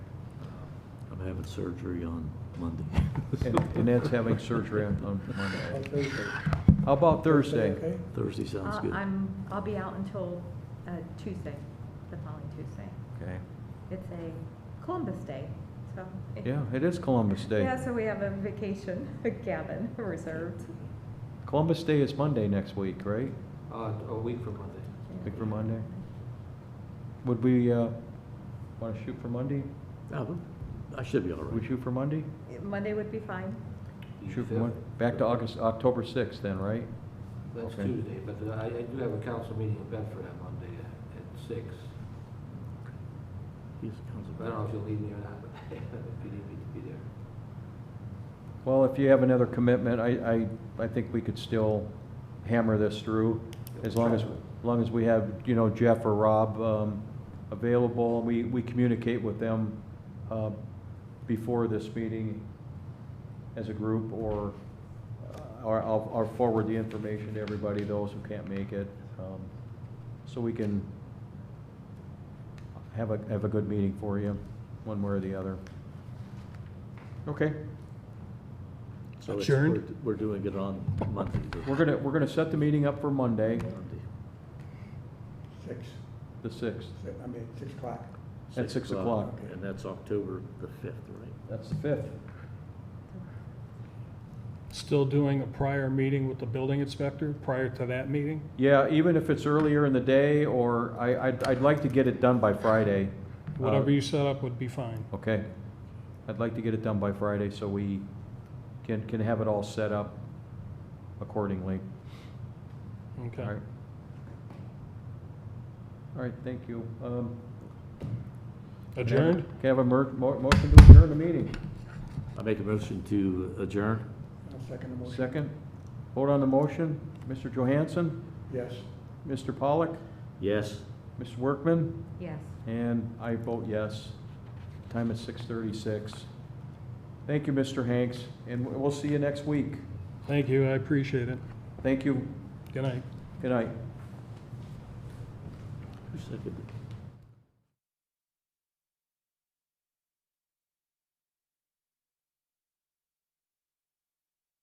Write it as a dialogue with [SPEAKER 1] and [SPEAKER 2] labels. [SPEAKER 1] I'm having surgery on Monday.
[SPEAKER 2] And and Ed's having surgery on on
[SPEAKER 3] on
[SPEAKER 2] Monday.
[SPEAKER 3] Thursday.
[SPEAKER 2] How about Thursday?
[SPEAKER 3] Okay?
[SPEAKER 1] Thursday sounds
[SPEAKER 4] Uh,
[SPEAKER 1] good.
[SPEAKER 4] I'm, I'll be out until uh, Tuesday, the following Tuesday.
[SPEAKER 2] Okay,
[SPEAKER 4] It's a Columbus Day, so.
[SPEAKER 2] yeah, it is Columbus Day.
[SPEAKER 4] Yeah, so we have a vacation cabin reserved.
[SPEAKER 2] Columbus Day is Monday next week, right?
[SPEAKER 5] Uh, a week from Monday.
[SPEAKER 2] Think for Monday? Would we, uh, wanna shoot for Monday?
[SPEAKER 1] Oh, I should be all
[SPEAKER 2] We
[SPEAKER 1] right.
[SPEAKER 2] shoot for Monday?
[SPEAKER 4] Monday would be fine.
[SPEAKER 5] the
[SPEAKER 2] Shoot for
[SPEAKER 5] fifth.
[SPEAKER 2] Mon, back to August, October sixth then, right?
[SPEAKER 5] That's
[SPEAKER 2] okay.
[SPEAKER 5] Tuesday, but uh, I, I do have a council meeting in Bedford on Monday at at six.
[SPEAKER 1] Yes, Council
[SPEAKER 5] I don't know if you'll need me or not, but if you need me to be there.
[SPEAKER 2] Well, if you have another commitment, I, I, I think we could still hammer this through, as long as, as long as we have, you know, Jeff or Rob, um, available, and we, we communicate with them, uh, before this meeting as a group, or, uh, or I'll, I'll forward the information to everybody, those who can't make it, um, so we can have a, have a good meeting for you, one way or the other. Okay?
[SPEAKER 1] So it's-
[SPEAKER 3] Adjourned?
[SPEAKER 1] we're- We're doing it on Monday. the-
[SPEAKER 2] We're gonna, we're gonna set the meeting up for Monday,
[SPEAKER 1] Monday,
[SPEAKER 3] Six,
[SPEAKER 2] the sixth,
[SPEAKER 3] si- I mean, six o'clock.
[SPEAKER 2] At six o'clock.
[SPEAKER 1] And that's October the fifth, right?
[SPEAKER 2] that's the fifth.
[SPEAKER 6] Still doing a prior meeting with the building inspector prior to that meeting?
[SPEAKER 2] Yeah, even if it's earlier in the day, or I, I'd, I'd like to get it done by Friday. Uh,
[SPEAKER 6] Whatever you set up would be fine.
[SPEAKER 2] Okay, I'd like to get it done by Friday, so we can, can have it all set up accordingly, all
[SPEAKER 6] Okay.
[SPEAKER 2] oh, right? All right, thank you, um.
[SPEAKER 6] Adjourned?
[SPEAKER 2] Can I have a mer, mo- motion to adjourn the meeting?
[SPEAKER 1] I make a motion to adjourn.
[SPEAKER 3] I'll second the motion.
[SPEAKER 2] Second, vote on the motion, Mr. Johansson,
[SPEAKER 3] Yes.
[SPEAKER 2] Mr. Pollock,
[SPEAKER 1] Yes.
[SPEAKER 2] Ms. Workman?
[SPEAKER 4] Yes.
[SPEAKER 2] And I vote yes. Time is six thirty-six. Thank you, Mr. Hanks, and we'll see you next week.
[SPEAKER 6] Thank you, I appreciate it.
[SPEAKER 2] Thank you.
[SPEAKER 6] Good night.
[SPEAKER 2] Good night.
[SPEAKER 1] Who seconded? it?